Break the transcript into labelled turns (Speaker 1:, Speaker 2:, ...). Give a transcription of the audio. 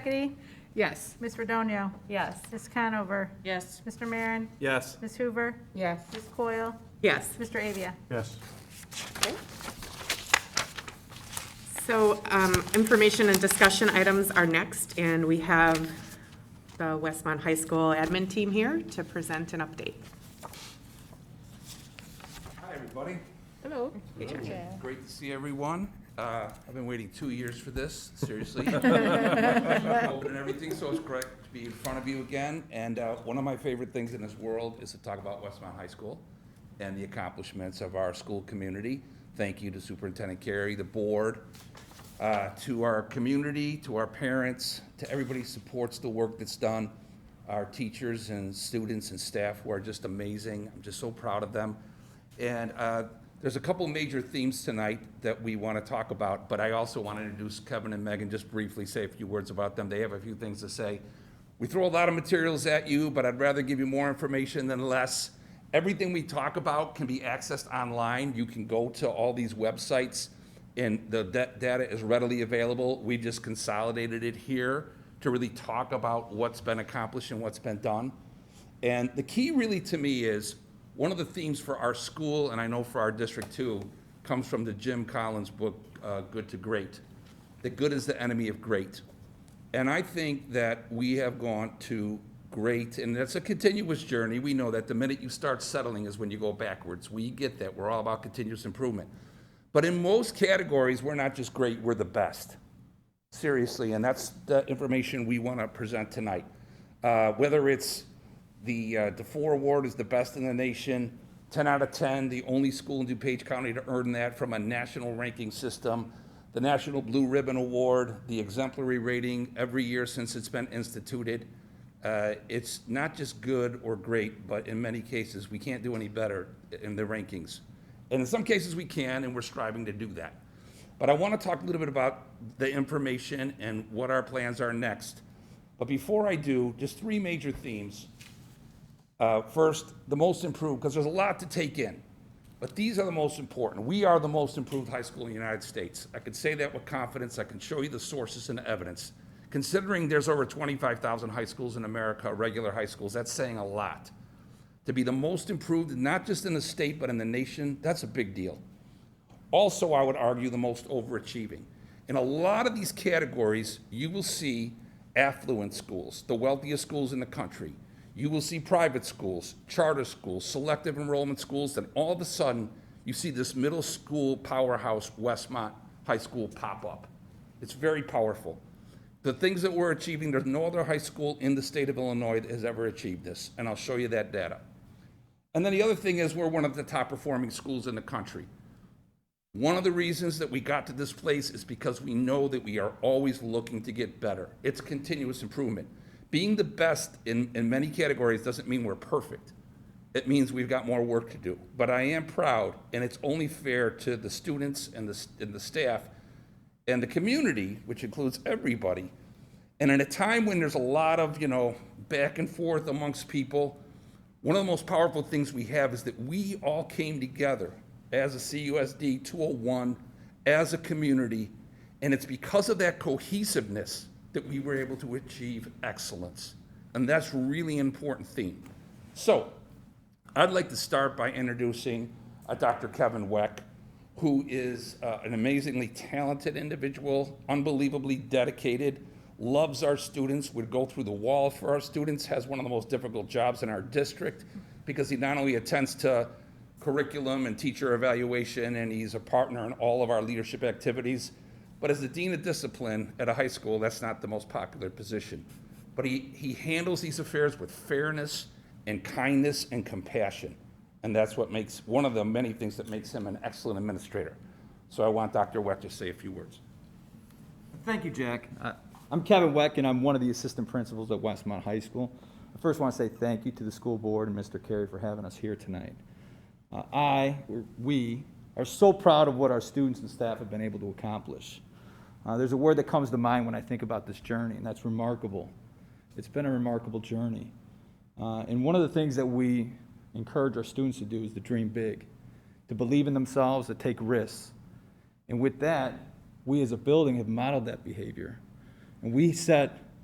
Speaker 1: Hackity,
Speaker 2: Yes.
Speaker 1: Ms. Redonio,
Speaker 3: Yes.
Speaker 1: Ms. Conover,
Speaker 3: Yes.
Speaker 1: Mr. Marin,
Speaker 4: Yes.
Speaker 1: Ms. Hoover,
Speaker 2: Yes.
Speaker 1: Ms. Coyle,
Speaker 2: Yes.
Speaker 1: Mr. Avia.
Speaker 4: Yes.
Speaker 2: So um, information and discussion items are next, and we have the Westmont High School admin team here to present an update.
Speaker 5: Hi, everybody.
Speaker 2: Hello.
Speaker 5: Great to see everyone. Uh, I've been waiting two years for this, seriously. COVID And everything, so it's great to be in front of you again. And uh, one of my favorite things in this world is to talk about Westmont High School and the accomplishments of our school community. Thank you to Superintendent Carey, the board, uh, to our community, to our parents, to everybody who supports the work that's done, our teachers and students and staff who are just amazing. I'm just so proud of them. And uh, there's a couple major themes tonight that we want to talk about, but I also want to introduce Kevin and Megan, just briefly say a few words about them. They have a few things to say. We throw a lot of materials at you, but I'd rather give you more information than less. Everything we talk about can be accessed online. You can go to all these websites and the da- data is readily available. We just consolidated it here to really talk about what's been accomplished and what's been done. And the key really to me is, one of the themes for our school, and I know for our district too, comes from the Jim Collins book, uh, Good to Great. That good is the enemy of great. And I think that we have gone to great, and that's a continuous journey. We know that the minute you start settling is when you go backwards. We get that. We're all about continuous improvement. But in most categories, we're not just great, we're the best. Seriously, and that's the information we want to present tonight. Uh, Whether it's the uh, DeFore Award is the best in the nation, 10 out of 10, the only school in DuPage County to earn that from a national ranking system, the National Blue Ribbon Award, the exemplary rating every year since it's been instituted. Uh, It's not just good or great, but in many cases, we can't do any better in the rankings. And in some cases, we can, and we're striving to do that. But I want to talk a little bit about the information and what our plans are next. But before I do, just three major themes. Uh, First, the most improved, because there's a lot to take in. But these are the most important. We are the most improved high school in the United States. I can say that with confidence. I can show you the sources and the evidence. Considering there's over 25,000 high schools in America, regular high schools, that's saying a lot. To be the most improved, not just in the state, but in the nation, that's a big deal also, I would argue, the most overachieving. In a lot of these categories, you will see affluent schools, the wealthiest schools in the country. You will see private schools, charter schools, selective enrollment schools, then all of a sudden, you see this middle school powerhouse, Westmont High School, pop up. It's very powerful. The things that we're achieving, there's no other high school in the state of Illinois that has ever achieved this, and I'll show you that data. And then the other thing is, we're one of the top performing schools in the country. One of the reasons that we got to this place is because we know that we are always looking to get better. It's continuous improvement. Being the best in, in many categories doesn't mean we're perfect. It means we've got more work to do. But I am proud, and it's only fair to the students and the, s- and the staff and the community, which includes everybody. And in a time when there's a lot of, you know, back and forth amongst people, one of the most powerful things we have is that we all came together as a CUSD 201, as a community, and it's because of that cohesiveness that we were able to achieve excellence. And that's really an important theme. So, I'd like to start by introducing uh, Dr. Kevin Weck, who is uh, an amazingly talented individual, unbelievably dedicated, loves our students, would go through the wall for our students, has one of the most difficult jobs in our district because he not only attends to curriculum and teacher evaluation, and he's a partner in all of our leadership activities, but as the dean of discipline at a high school, that's not the most popular position. But he, he handles these affairs with fairness and kindness and compassion. And that's what makes, one of the many things that makes him an excellent administrator. So I want Dr. Weck to say a few words.
Speaker 6: Thank you, Jack. Uh, I'm Kevin Weck, and I'm one of the assistant principals at Westmont High School. I first want to say thank you to the school board and Mr. Carey for having us here tonight. Uh, I, or we, are so proud of what our students and staff have been able to accomplish. Uh, There's a word that comes to mind when I think about this journey, and that's remarkable. It's been a remarkable journey. Uh, And one of the things that we encourage our students to do is to dream big, to believe in themselves, to take risks, and with that, we as a building have modeled that behavior. And we set